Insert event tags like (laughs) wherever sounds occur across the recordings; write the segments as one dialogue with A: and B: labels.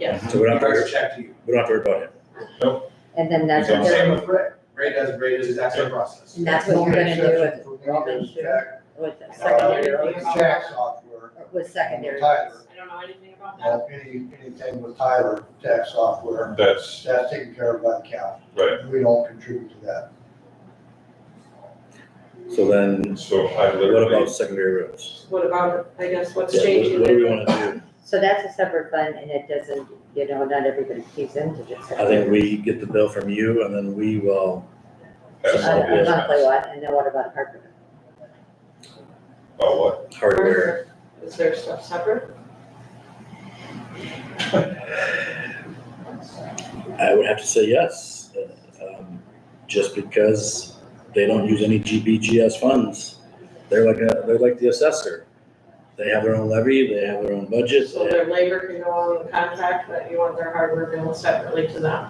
A: Yes.
B: So we don't have to,
C: Greg's
B: worry-
C: check to you.
B: we don't have to worry about him.
D: And then that's
C: So
D: what
C: Same
D: they're,
C: with Greg. Greg does, Greg does that same process.
D: and that's what you're gonna do with,
E: Robin's check,
D: with the
E: uh,
D: secondary,
E: check software,
D: with secondary.
E: Tyler,
A: I don't know anything about that.
E: uh, any, anything with Tyler tax software,
F: That's
E: that's taken care of by the county.
F: right.
E: We don't contribute to that.
B: So then,
F: So I
B: what about
F: literally,
B: secondary roads?
A: What about, I guess, what's
B: Yeah, what-
A: changing?
B: What do we wanna do?
D: So that's a separate fund and it doesn't, you know, not everybody keeps into just.
B: I think we get the bill from you and then we will,
F: as
D: A
F: a
D: a monthly
F: business,
D: one, and then what about Harper?
F: about what?
B: hardware,
A: Is there stuff separate?
B: I would have to say yes. um, Just because they don't use any GBGS funds. They're like, a- they're like the assessor. They have their own levy, they have their own budget,
A: So
B: they-
A: their labor can go on the contract, but you want their hardware bill separately to them.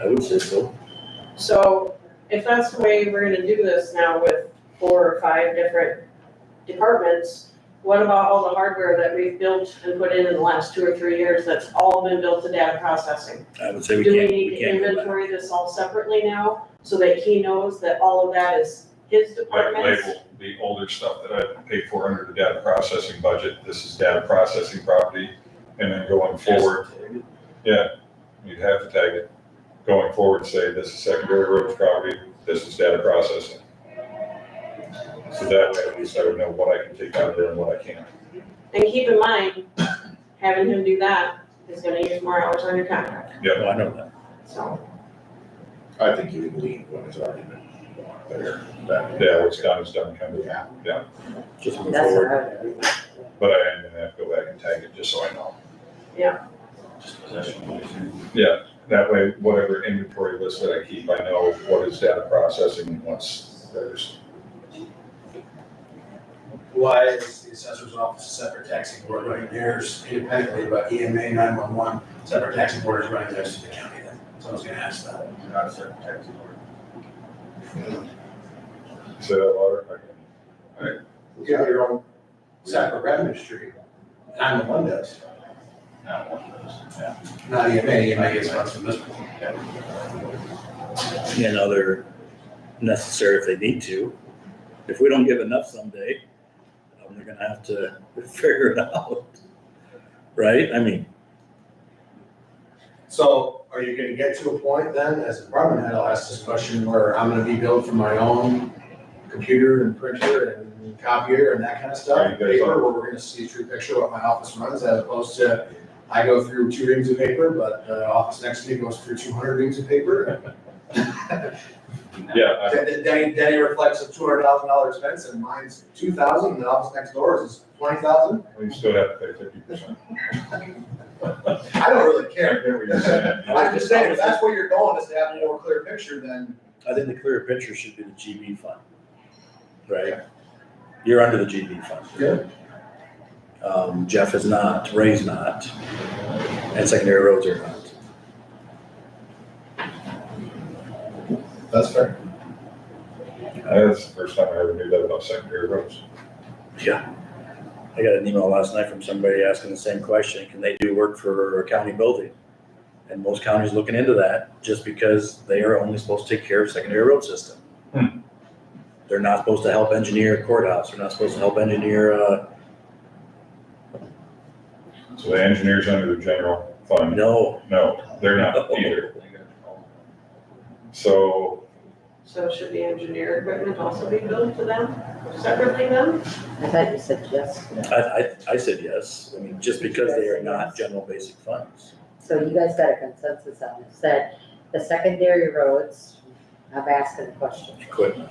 B: I would say so.
A: So if that's the way we're gonna do this now with four or five different departments, what about all the hardware that we've built and put in in the last two or three years that's all been built to data processing?
B: I would say we
A: Do we
B: can't,
A: need to
B: we can't. go back.
A: inventory this all separately now, so that he knows that all of that is his
F: Like
A: department's?
F: label the older stuff that I paid for under the data processing budget, this is data processing property, and then going forward, yeah, you'd have to tag it. Going forward, say this is secondary roads property, this is data processing. So that way, at least I would know what I can take out of there and what I can't.
A: And keep in mind, having him do that is gonna use more hours on your contract,
B: No, I know that.
A: so.
G: I think you can leave when it's already been there. That-
F: Yeah, what's done is done, kind of,
G: Yeah.
B: Just move
D: That's what
B: forward.
D: I would.
F: but I am gonna have to go back and tag it, just so I know. That way, whatever inventory list that I keep, I know what is data processing and what's theirs.
C: Why is the assessor's office a separate taxing board running theirs independently, but E EMA nine-one-one, separate taxing board is running theirs to the county then? Someone's gonna ask that. Not a separate taxing board.
F: Say that louder.
C: You have your own separate revenue stream, nine-one-one does,
G: Not one of those. Yeah.
C: not E EMA, EMA gets funds from this one.
B: And other necessary if they need to. If we don't give enough someday, um, they're gonna have to (laughs) figure it out. Right? I mean,
C: So are you gonna get to a point then, as a department head, I'll ask this question, where I'm gonna be billed for my own computer and printer and copier and that kind of
F: Are
C: stuff?
F: you guys on-
C: Paper, where we're gonna see a true picture of what my office runs, as opposed to, I go through two reams of paper, but the office next to me goes through two hundred reams of paper.
F: (laughs) Yeah, I-
C: Then, then- then, then it reflects a two hundred thousand dollar expense, and mine's two thousand, and the office next door is twenty thousand?
F: we still have to pay fifty percent.
C: I don't really
F: (laughs)
C: care. I'm
B: I
C: just saying, if that's where you're going, is to have a more clear picture, then
B: think the clearer picture should be the GB fund. Right? You're under the GB fund. Um, Jeff is not, Ray's not, and secondary roads are not.
C: That's fair.
F: That's the first time I ever knew that about secondary roads.
B: I got an email last night from somebody asking the same question, can they do work for a county building? And most counties looking into that just because they are only supposed to take care of secondary road system.
F: Hmm.
B: They're not supposed to help engineer courthouse, they're not supposed to help engineer, uh,
F: So the engineers under the general fund,
B: no,
F: no, they're not either. So,
A: So should the engineer equipment also be billed to them separately then?
D: I thought you said yes.
B: I, I, I said yes, I mean, just because they are not general basic funds.
D: So you guys got a consensus on this, that the secondary roads, I'm asking the question,
B: Equipment,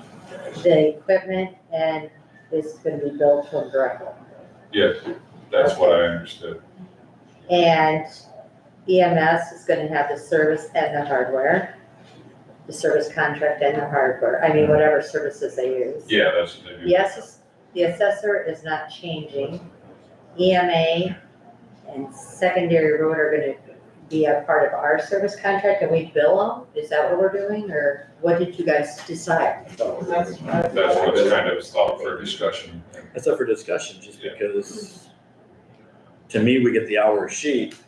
D: the equipment and is gonna be built from directly.
F: yes, that's what I understood.
D: And EMS is gonna have the service and the hardware, the service contract and the hardware, I mean, whatever services they use.
F: Yeah, that's what they do.
D: Yes, the assessor is not changing. EMA and secondary road are gonna be a part of our service contract and we bill them? Is that what we're doing, or what did you guys decide?
A: That's what.
F: That's what's kind of thought for discussion.
B: that's up for discussion, just
F: Yeah.
B: because to me, we get the hour sheet,